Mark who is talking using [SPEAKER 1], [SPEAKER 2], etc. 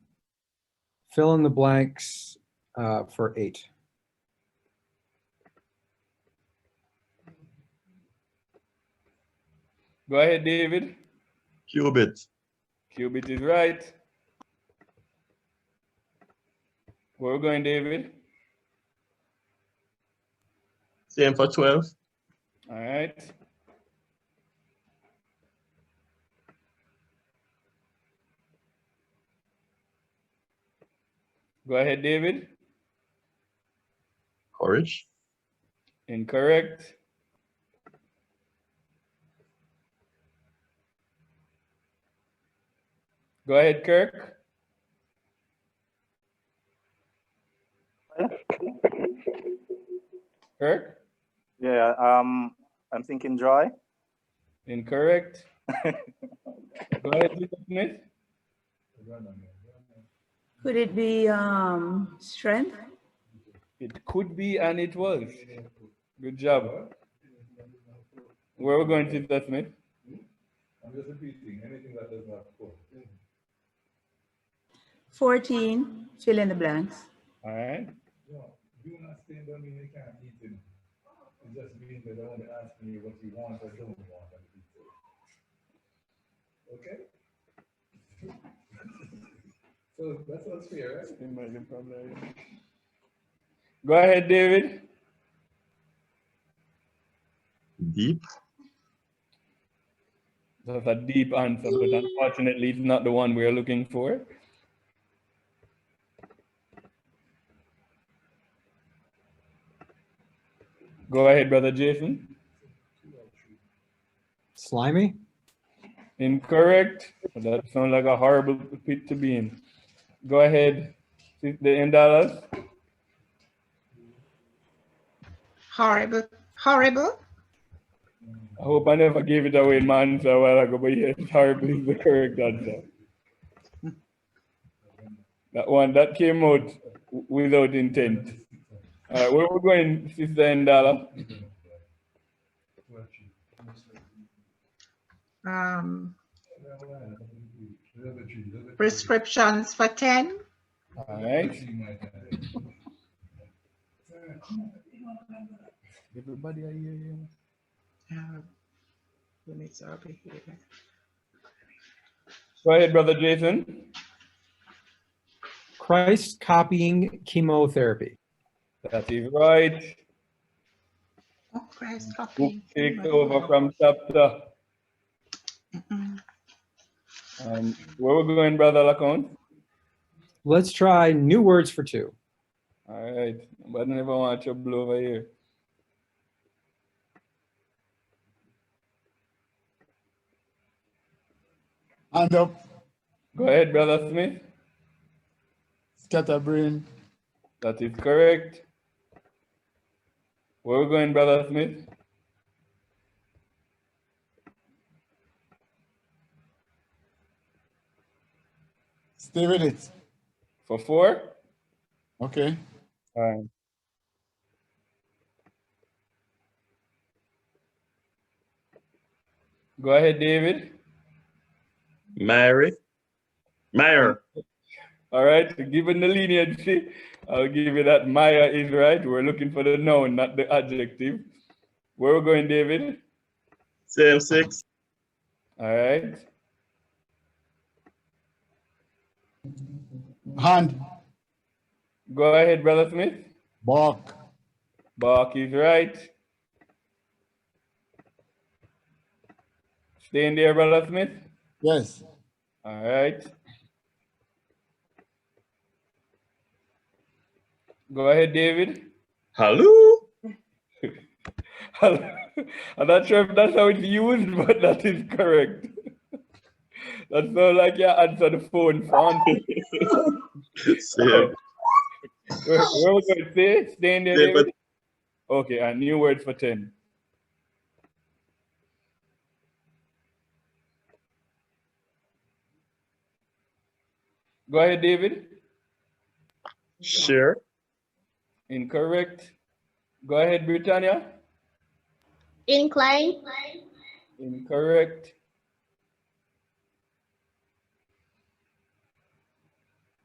[SPEAKER 1] fill in the blanks uh, for eight.
[SPEAKER 2] Go ahead, David.
[SPEAKER 3] Qubit,
[SPEAKER 2] Qubit is right. Where we going, David?
[SPEAKER 3] same for 12.
[SPEAKER 2] All right. Go ahead, David.
[SPEAKER 3] Courage,
[SPEAKER 2] Incorrect. Go ahead, Kirk. Kirk,
[SPEAKER 4] Yeah, um, I'm thinking joy.
[SPEAKER 2] incorrect. Go ahead, Lisa Smith.
[SPEAKER 5] Could it be um, strength?
[SPEAKER 2] It could be and it was. Good job. Where we going, Lisa Smith?
[SPEAKER 6] I'm just repeating, anything that does not score.
[SPEAKER 5] 14, fill in the blanks.
[SPEAKER 2] All right.
[SPEAKER 6] No, you not saying don't mean they can't eat it. It just means they don't ask me what you want or don't want. and eat it. Okay? So that's what's fair, right?
[SPEAKER 2] Go ahead, David.
[SPEAKER 3] deep,
[SPEAKER 2] That's a deep answer, but unfortunately, it's not the one we're looking for. Go ahead, brother Jason.
[SPEAKER 1] Slimy?
[SPEAKER 2] Incorrect. That sounds like a horrible pit to be in. Go ahead, the Indalas.
[SPEAKER 7] Horrible, horrible.
[SPEAKER 2] I hope I never gave it away in my answer a while ago, but yeah, it's horribly the correct answer. That one, that came out w- without intent. All right, where we going, Sister Ndala?
[SPEAKER 7] Um,
[SPEAKER 6] Another tree, another tree.
[SPEAKER 7] prescriptions for 10.
[SPEAKER 2] All right.
[SPEAKER 6] Tree might have.
[SPEAKER 2] Everybody, I hear you.
[SPEAKER 7] Um, limits our behavior.
[SPEAKER 2] Go ahead, Brother Jason.
[SPEAKER 1] Christ copying chemotherapy.
[SPEAKER 2] That is right.
[SPEAKER 7] Oh, Christ,
[SPEAKER 2] Book
[SPEAKER 7] copying.
[SPEAKER 2] takes over uh, from chapter.
[SPEAKER 7] Mm-mm.
[SPEAKER 2] Um, where we going, Brother Lacon?
[SPEAKER 1] Let's try new words for two.
[SPEAKER 2] All right, but I never want trouble over here.
[SPEAKER 8] Hand up,
[SPEAKER 2] Go ahead, Brother Smith.
[SPEAKER 8] scatterbrain,
[SPEAKER 2] That is correct. Where we going, Brother Smith?
[SPEAKER 8] stay with it.
[SPEAKER 2] For four?
[SPEAKER 8] Okay.
[SPEAKER 2] All right. Go ahead, David.
[SPEAKER 3] Mary, Mayor,
[SPEAKER 2] All right, given the leniency, I'll give you that Maya is right. We're looking for the noun, not the adjective. Where we going, David?
[SPEAKER 3] same six,
[SPEAKER 2] All right.
[SPEAKER 8] Hand,
[SPEAKER 2] Go ahead, Brother Smith.
[SPEAKER 8] bark,
[SPEAKER 2] Bark is right. Stay in there, Brother Smith.
[SPEAKER 8] yes.
[SPEAKER 2] All right. Go ahead, David.
[SPEAKER 3] Hello,
[SPEAKER 2] I'm not sure if that's how it's used, but that is correct. That's not like you answer the phone font.
[SPEAKER 3] same,
[SPEAKER 2] Where, where we going? Stay, stay in there,
[SPEAKER 3] Yeah, but-
[SPEAKER 2] David. Okay, a new word for ten. Go ahead, David.
[SPEAKER 3] share,
[SPEAKER 2] Incorrect. Go ahead, Britannia.
[SPEAKER 9] Incline.
[SPEAKER 2] Incorrect.